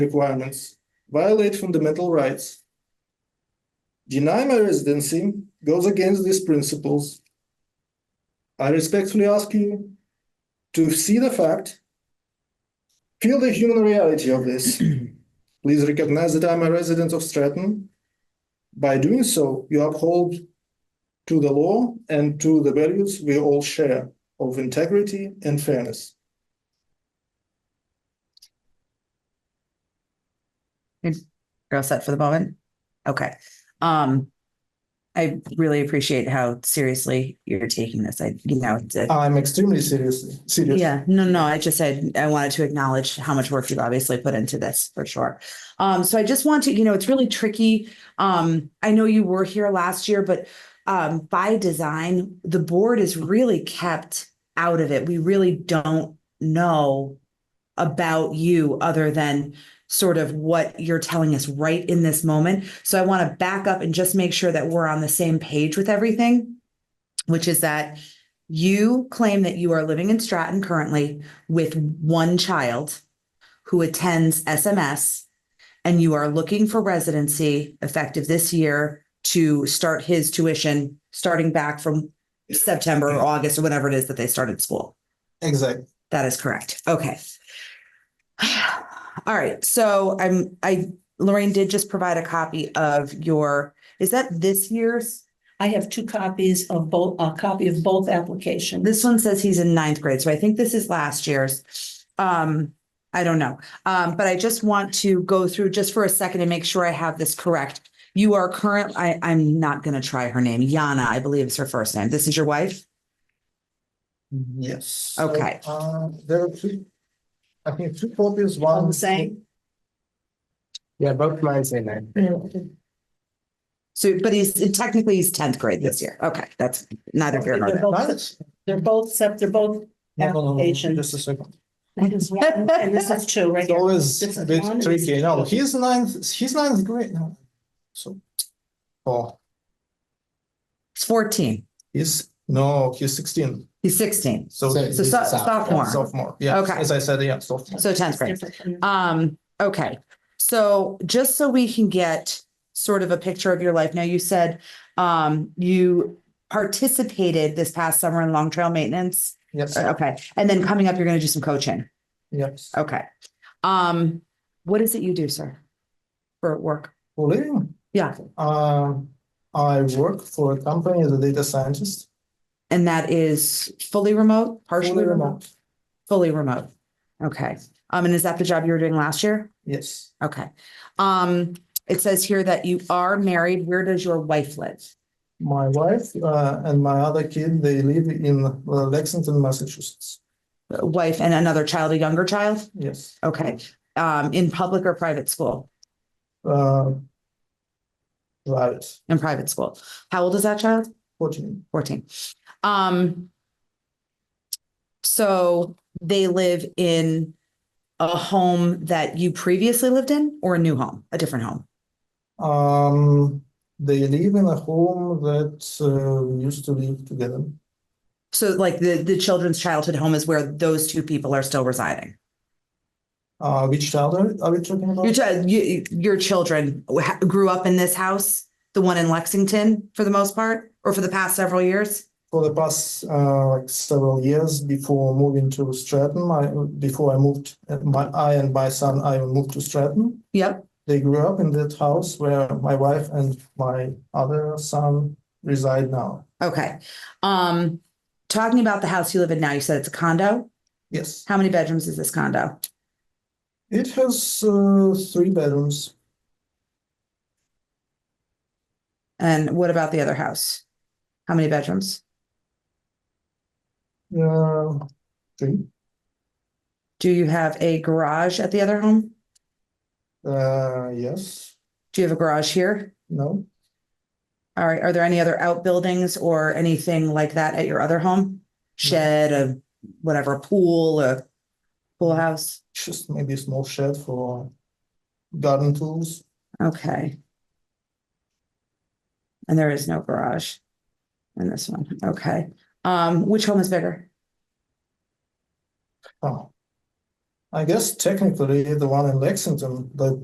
requirements, violate fundamental rights, deny my residency, goes against these principles. I respectfully ask you to see the fact, feel the human reality of this. Please recognize that I'm a resident of Stratton. By doing so, you uphold to the law and to the values we all share of integrity and fairness. You're all set for the moment? Okay. Um, I really appreciate how seriously you're taking this. I, you know, it's a- I'm extremely serious, serious. yeah, no, no, I just said, I wanted to acknowledge how much work you've obviously put into this for sure. Um, so I just want to, you know, it's really tricky. Um, I know you were here last year, but um, by design, the board is really kept out of it. We really don't know about you other than sort of what you're telling us right in this moment. So I want to back up and just make sure that we're on the same page with everything, which is that you claim that you are living in Stratton currently with one child who attends SMS and you are looking for residency effective this year to start his tuition starting back from September or August or whatever it is that they started school. Exactly. That is correct. Okay. All right. So I'm, I, Lorraine did just provide a copy of your, is that this year's? I have two copies of both, a copy of both applications. This one says he's in ninth grade, so I think this is last year's. Um, I don't know, um, but I just want to go through just for a second and make sure I have this correct. You are current, I, I'm not gonna try her name, Yana, I believe is her first name. This is your wife? Yes. Okay. So, Uh, there are two, I think two copies, one. All the same. Yeah, both mine say nine. They're So, but he's technically he's tenth grade this year. Okay, that's neither here nor there. both, they're both, except they're both, No, no, no, no, Application. Just a second. that is one, and this is two, right It's here. always This a is bit one, this is tricky. No, two. he's ninth, he's ninth grade now. So. Oh, He's fourteen, he's, no, he's sixteen. he's sixteen, So. So he's so so- a sophomore. Sophomore, yeah. Okay. As I said, yeah, sophomore. so tenth grade. Different. Um, okay, so just so we can get sort of a picture of your life. Now, you said um you participated this past summer in long trail maintenance. Yes, Okay, and then coming up, you're gonna do some coaching. yes. Okay. Um, what is it you do, sir? For work? For living? Yeah. Um, I work for a company as a data scientist. And that is fully remote, partially Fully remote? Fully remote. Okay. Um, and is that the job you were doing last year? Yes, Okay. Um, it says here that you are married. Where does your wife live? my wife, uh, and my other kid, they live in uh, Lexington, Massachusetts. wife and another child, a younger child? Yes. Okay. Um, in public or private school? Uh, Right, In private school. How old is that child? fourteen, Fourteen. Um. So they live in a home that you previously lived in or a new home, a different home? um, they live in a home that uh, we used to live together. So like the, the children's childhood home is where those two people are still residing? Uh, which child are are we talking about? Your, chi- you, your children ha- grew up in this house, the one in Lexington for the most part, or for the past several years? For the past, uh, like several years before moving to Stratton, I, before I moved, uh, my, I and my son, I moved to Stratton. Yep. They grew up in that house where my wife and my other son reside now. Okay. Um, talking about the house you live in now, you said it's a condo. Yes, How many bedrooms is this condo? it has, uh, three bedrooms. And what about the other house? How many bedrooms? Uh, three. Do you have a garage at the other home? Uh, yes, Do you have a garage here? no, All right. Are there any other outbuildings or anything like that at your other home? Shed, a whatever, a pool, a pool house? just maybe a small shed for garden tools. Okay. And there is no garage in this one. Okay. Um, which home is bigger? Oh. I guess technically the one in Lexington, the